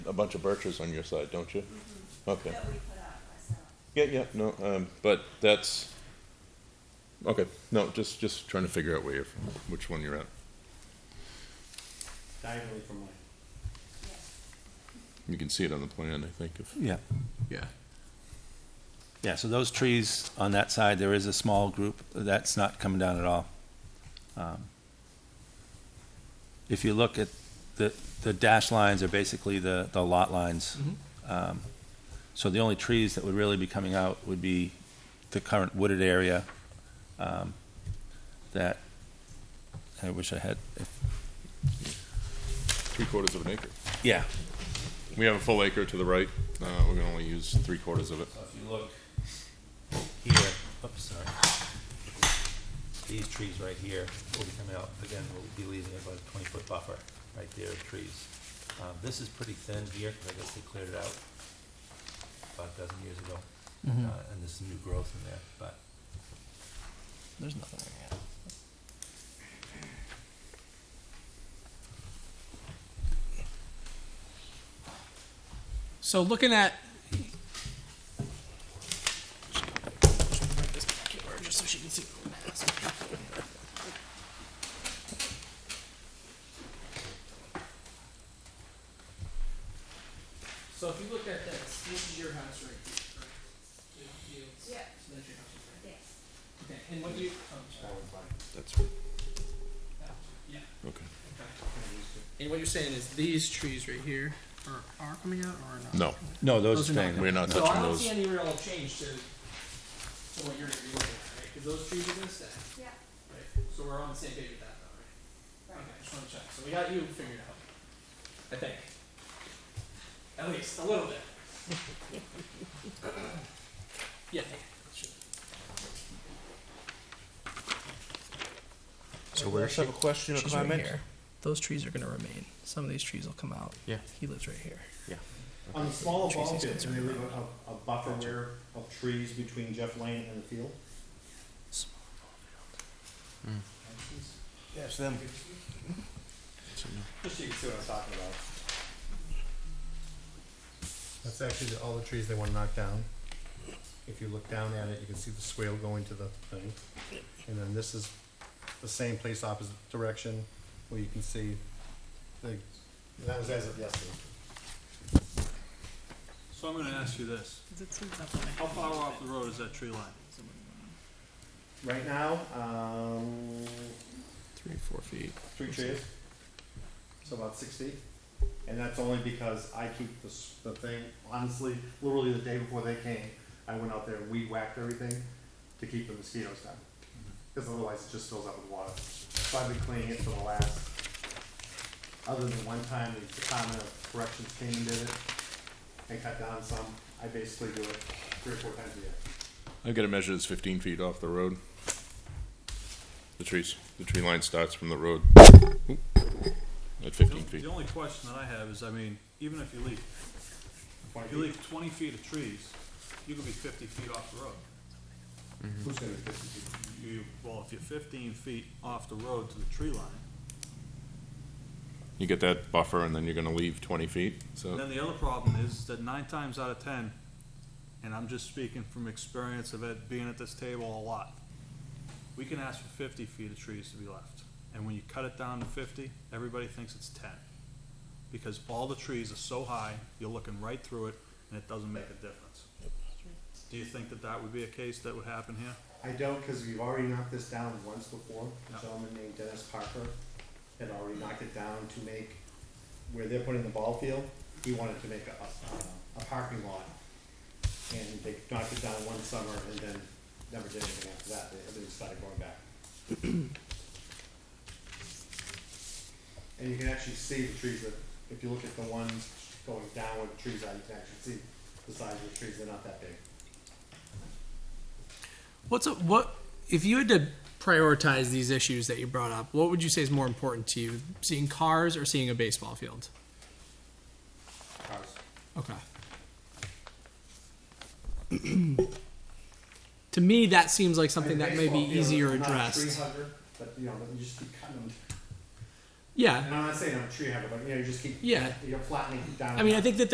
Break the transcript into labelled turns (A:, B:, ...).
A: a bunch of birches on your side, don't you? Mm-hmm. Okay.
B: that we put up ourselves.
A: Yeah, yeah, no, um, but that's, okay, no, just, just trying to figure out where you're, which one you're at.
C: diagonally from mine.
A: You can see it on the plan, I think, if,
D: Yeah,
A: yeah.
D: yeah, so those trees on that side, there is a small group, that's not coming down at all. Um, If you look at, the, the dash lines are basically the, the lot lines. Um, So the only trees that would really be coming out would be the current wooded area um, that, I wish I had,
A: Three quarters of an acre.
D: yeah,
A: We have a full acre to the right, uh, we're gonna only use three quarters of it.
D: So if you look here, oops, sorry. These trees right here will be coming out, again, we'll be leaving about a twenty-foot buffer right there of trees. Um, this is pretty thin here, because I guess they cleared it out five dozen years ago. Uh, and there's some new growth in there, but. There's nothing there
E: So looking at. So if you look at this, this is your house right here, correct? You- you-
B: Yeah,
E: so that's your house right
B: yes.
E: there. Okay, and what do you, oh, sorry.
A: That's,
E: Yeah,
A: okay.
E: okay. And what you're saying is these trees right here are, are coming out or are not?
A: No,
D: No,
E: Those are not
D: staying.
A: we're not
E: So I
A: touching
E: don't see
A: those.
E: any real change to, to what you're gonna be looking at, right? Cause those trees are gonna stay,
B: Yeah,
E: right? So we're on the same page with that though,
B: right.
E: right? Okay, just wanna check. So we got you figured out. I think. At least, a little bit. Yeah. sure.
F: So where's
G: have a question or
F: She's right
G: comment?
F: here. Those trees are gonna remain. Some of these trees will come out.
G: Yeah.
F: He lives right here.
C: On the smaller
F: Trees
C: ball
F: he's
C: pits, do they
F: concerned
C: leave a, a- a buffer where of trees between Jeff Lane and the field?
G: Yes, them.
C: Just so you can see what I'm talking about.
H: That's actually the- all the trees they wanna knock down. If you look down at it, you can see the swale going to the thing. And then this is the same place opposite direction where you can see the, that was as of yesterday.
C: So I'm gonna ask you this,
F: Is it that way?
C: how far off the road is that tree line? Right now, um,
F: Three, four feet.
C: three trees, so about six feet. And that's only because I keep the, s- the thing, honestly, literally the day before they came, I went out there and weed whacked everything to keep the mosquitoes down.
F: Mm-hmm.
C: Cause otherwise it just fills up with water. So I've been cleaning it for the last, other than one time the Department of Corrections came and did it and cut down some, I basically do it three or four times a year.
A: I've got it measured as fifteen feet off the road. The trees, the tree line starts from the road. Oop. At fifteen feet.
I: The only question that I have is, I mean, even if you leave, if you
C: Twenty feet,
I: leave twenty feet of trees, you could be fifty feet off the road.
C: who's gonna be fifty feet?
I: You, well, if you're fifteen feet off the road to the tree line,
A: You get that buffer and then you're gonna leave twenty feet, so,
I: then the other problem is that nine times out of ten, and I'm just speaking from experience of it, being at this table a lot, we can ask for fifty feet of trees to be left, and when you cut it down to fifty, everybody thinks it's ten. Because all the trees are so high, you're looking right through it, and it doesn't make a difference. Do you think that that would be a case that would happen here?
C: I don't, because we've already knocked this down once before.
I: Yeah.
C: A gentleman named Dennis Parker had already knocked it down to make, where they're putting the ball field, he wanted to make a, a, a parking lot. And they knocked it down one summer and then never did anything after that, They- everything started going back. And you can actually see the trees that, if you look at the ones going down where the trees are, you can actually see the size of the trees, they're not that big.
E: What's a, what if you had to prioritize these issues that you brought up? What would you say is more important to you, seeing cars or seeing a baseball field?
C: Cars.
E: Okay. to me, that seems like something that may be easier addressed.
C: Three hundred, but you know, but you just keep cutting them.
E: Yeah,
C: And I'm not saying I'm a tree hugger, but you know, you just keep,
E: Yeah.
C: you're flattening down.
E: I mean, I think that